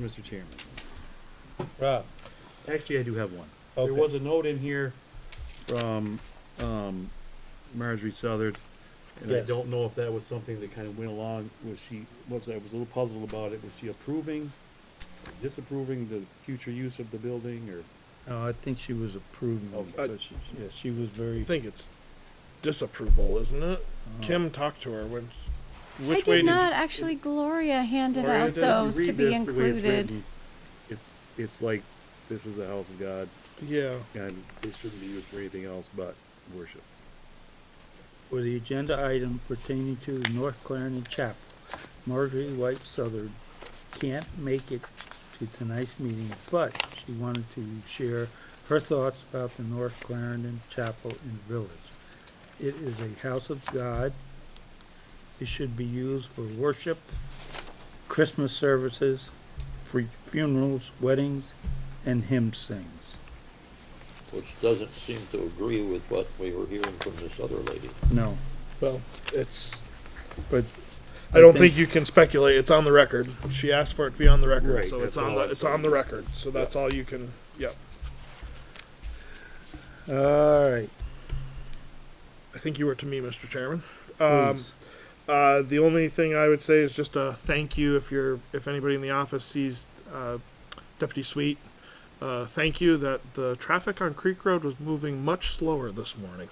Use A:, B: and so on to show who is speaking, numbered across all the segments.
A: Mr. Chairman.
B: Rob,
A: Actually, I do have one. There
B: okay.
A: was a note in here from, um, Marjorie Southard. And I
B: Yes.
A: don't know if that was something that kind of went along, was she, was, I was a little puzzled about it, was she approving, disapproving the future use of the building, or?
C: No, I think she was approving,
A: Okay.
C: it, but she, yeah, she was
D: I
C: very,
D: think it's disapproval, isn't it?
A: Uh-huh.
D: Kim talked to her. Which,
E: I
D: which way
E: did
D: did
E: not, actually Gloria handed
D: Gloria
E: out
D: did?
E: those
A: If you
E: to
A: read
E: be
A: this the way it's
E: included.
A: written, It's, it's like, this is the house of God,
D: Yeah.
A: and it shouldn't be used for anything else but worship.
C: for the agenda item pertaining to the North Clarendon Chapel, Marjorie White Southern can't make it to tonight's meeting, but she wanted to share her thoughts about the North Clarendon Chapel and Village. It is a house of God. It should be used for worship, Christmas services, free funerals, weddings, and hymn sings.
B: Which doesn't seem to agree with what we were hearing from this other lady.
C: No,
D: Well, it's.
C: but
D: I don't think you can speculate. It's on the record. She asked for it to be on the record,
A: Right,
D: so
A: that's
D: it's on
A: all
D: the
A: I'm
D: it's on the
A: saying.
D: record. So that's all you can. Yep.
C: All right,
D: I think you were to me, Mr. Chairman.
A: Hmm.
D: Um,
C: please.
D: Uh, the only thing I would say is just a thank you if you're if anybody in the office sees uh, Deputy Sweet. Uh, thank you that the traffic on Creek Road was moving much slower this morning,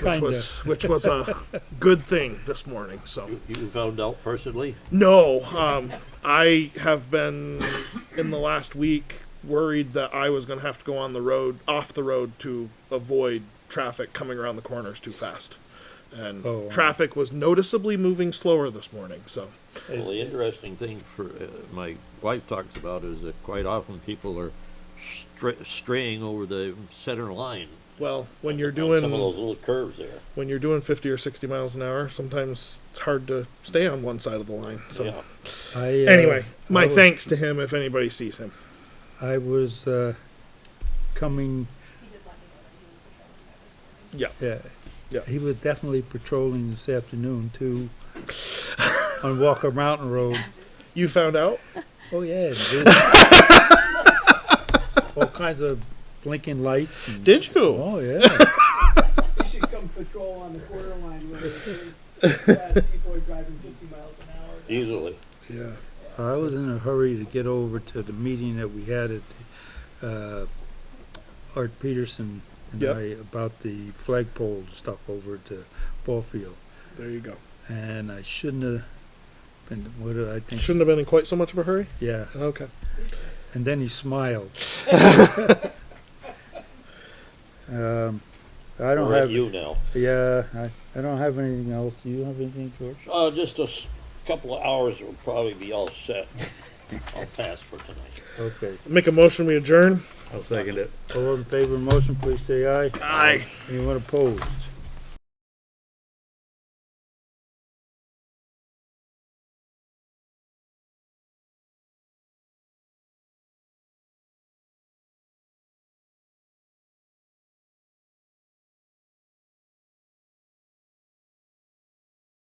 D: which was which was a good thing this morning. So
B: You found out personally?
D: no, um, I have been in the last week worried that I was going to have to go on the road off the road to avoid traffic coming around the corners too fast, and
C: Oh, wow.
D: traffic was noticeably moving slower this morning. So.
B: Well, the interesting thing for, uh, my wife talks about is that quite often people are stra- straying over the center line.
D: Well, when you're
B: on Some of those
D: doing
B: little curves there.
D: when you're doing 50 or 60 miles an hour, sometimes it's hard to stay on one side of the line. So
B: Yeah.
C: I, uh,
D: anyway, my
C: I was-
D: thanks to him if anybody sees him.
C: I was, uh, coming,
D: Yeah.
C: yeah.
D: Yeah.
C: He was definitely patrolling this afternoon too, on Walker Mountain Road.
D: You found out?
C: Oh, yeah. and there was All kinds of blinking lights. and-
D: Did you?
C: Oh, yeah.
F: You should come patrol on the quarter line where they- that people are driving fifty miles an hour.
B: Easily.
D: Yeah.
C: I was in a hurry to get over to the meeting that we had at, uh, Art Peterson and
D: Yep.
C: I about the flagpole stuff over at the ball field.
D: There you go.
C: and I shouldn't have been. What did I think?
D: Shouldn't have been in quite so much of a hurry.
C: Yeah,
D: Okay.
C: and then he smiled. um, I don't
B: We're at
C: have.
B: You now.
C: Yeah, I, I don't have anything else. Do you have anything, George?
B: Uh, just a s- couple of hours will probably be all set. I'll pass for tonight.
C: Okay.
D: Make a motion we adjourn.
A: I'll second it.
C: All those in favor of the motion, please say aye.
D: Aye.
C: Anyone opposed?